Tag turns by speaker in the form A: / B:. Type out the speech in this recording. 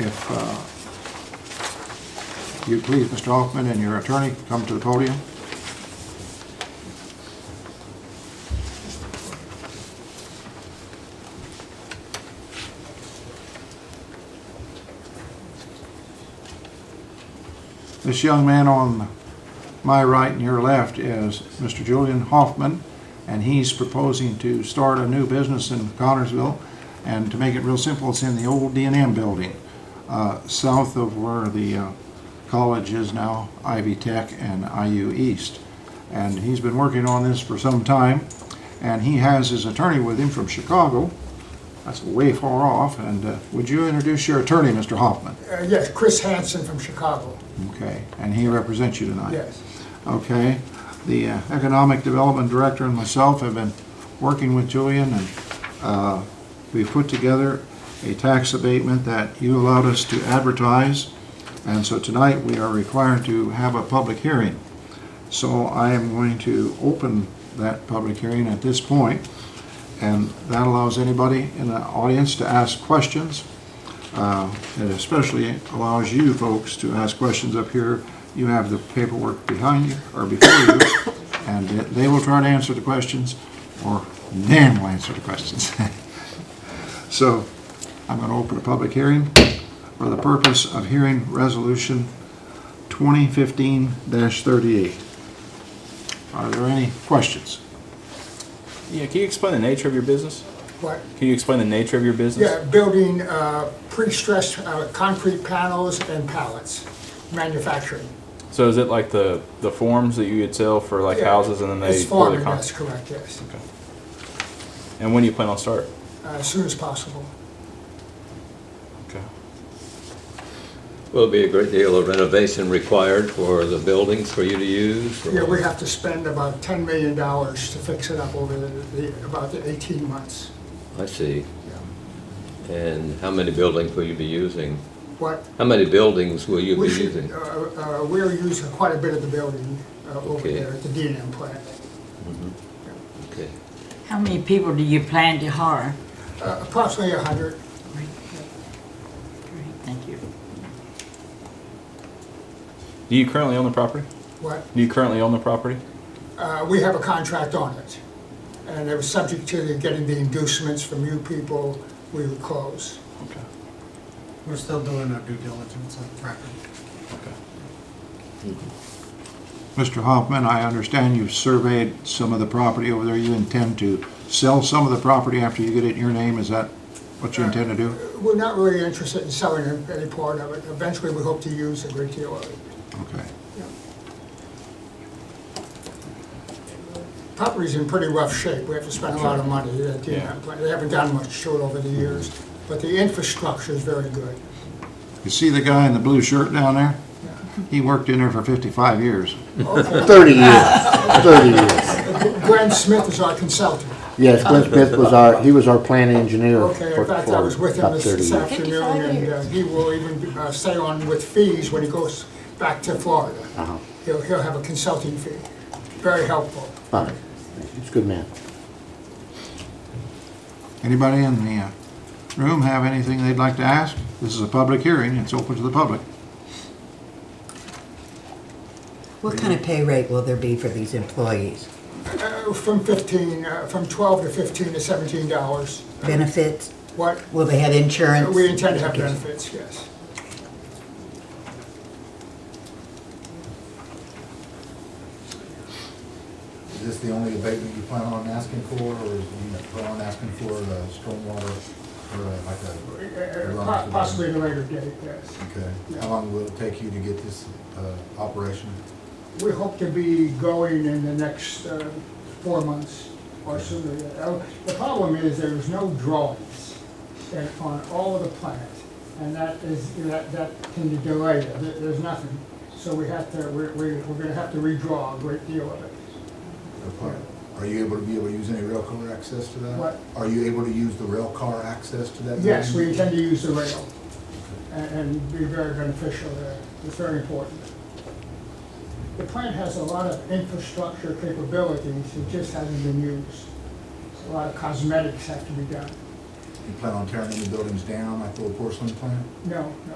A: If uh, you please, Mr. Hoffman and your attorney, come to the podium. This young man on my right and your left is Mr. Julian Hoffman, and he's proposing to start a new business in Connersville. And to make it real simple, it's in the old D and M building, uh, south of where the uh, college is now, Ivy Tech and IU East. And he's been working on this for some time, and he has his attorney with him from Chicago. That's way far off, and uh, would you introduce your attorney, Mr. Hoffman?
B: Uh, Yes, Chris Hansen from Chicago,
A: Okay, and he represents you tonight?
B: yes.
A: Okay, the uh, Economic Development Director and myself have been working with Julian, and uh, we've put together a tax abatement that you allowed us to advertise, and so tonight we are required to have a public hearing. So I am going to open that public hearing at this point, and that allows anybody in the audience to ask questions. Uh, It especially allows you folks to ask questions up here. You have the paperwork behind you, or before you, and they will try to answer the questions, or Dan will answer the questions. So I'm going to open a public hearing for the purpose of hearing Resolution 2015-38. Are there any questions?
C: Yeah, can you explain the nature of your business?
B: But,
C: Can you explain the nature of your business?
B: yeah, building uh, pre-stressed uh, concrete panels and pallets, manufacturing.
C: So is it like the the forms that you would sell for like
B: Yeah.
C: houses and then they
B: It's
C: pour the
B: farming,
C: con-
B: that's correct, yes,
C: And when do you plan on start?
B: Uh, as soon as possible.
C: Okay.
D: Will be a great deal of renovation required for the buildings for you to use? or-
B: Yeah, we have to spend about $10 million to fix it up over the, the- about the 18 months.
D: I see. And how many buildings will you be using?
B: What,
D: How many buildings will you be
B: we should,
D: using?
B: uh, uh, we're using quite a bit of the building uh, over
D: Okay.
B: there at the D and M plant.
D: Okay.
E: How many people do you plan to hire?
B: Uh, Approximately 100,
E: Great, Great, thank you.
C: Do you currently own the property?
B: what,
C: Do you currently own the property?
B: Uh, we have a contract on it, and it was subject to the- getting the inducements from you people, we would close.
C: Okay.
F: We're still doing our due diligence on the property.
C: Okay.
A: Mr. Hoffman, I understand you've surveyed some of the property over there. You intend to sell some of the property after you get it in your name? Is that what you intend to do?
B: We're not really interested in selling any- any part of it, eventually we hope to use a great deal of it.
A: Okay.
B: Property's in pretty rough shape, we have to spend a lot of money, They- they
C: Yeah.
B: haven't- they haven't done much to it over the years, but the infrastructure is very good.
A: You see the guy in the blue shirt down there? He worked in there for 55 years.
G: 30 years, 30 years.
B: Glenn Smith is our consultant,
G: Yes, Glenn Smith was our, he was our plant engineer
B: okay,
G: for
B: in fact, I was
G: for
B: with him
G: about
B: this
G: 30
B: this
G: years.
B: afternoon, and uh, he will even uh, stay on with fees when he goes back to Florida.
G: Uh-huh.
B: He'll, he'll have a consulting fee, very helpful.
G: All right. He's a good man.
A: Anybody in the uh, room have anything they'd like to ask? This is a public hearing. It's open to the public.
H: What kind of pay rate will there be for these employees?
B: Uh, From 15, uh, from 12 to 15 to 17 dollars.
H: Benefits?
B: What,
H: Will they have insurance?
B: we intend to have benefits, yes.
I: Is this the only abatement you plan on asking for, or is you plan on asking for the stormwater, or
B: Uh,
I: like a?
B: uh, po- Possibly in a later date, yes.
I: Okay, how long will it take you to get this, uh, operation?
B: We hope to be going in the next uh, four months or sooner. Uh, The problem is there's no drawings that- on all of the plans, and that is, that, that can delay it. There- There's nothing. So we have to, we're, we're we're gonna have to redraw a great deal of it.
I: Or plan- Are you able to be able to use any rail car access to that?
B: What?
I: Are you able to use the rail car access to that?
B: Yes, we
I: building?
B: intend to use the rail and- and be very beneficial there. It's very important. The plant has a lot of infrastructure capabilities that just hasn't been used. A lot of cosmetics have to be done.
I: You plan on tearing any buildings down, like the old porcelain plant?
B: No, no.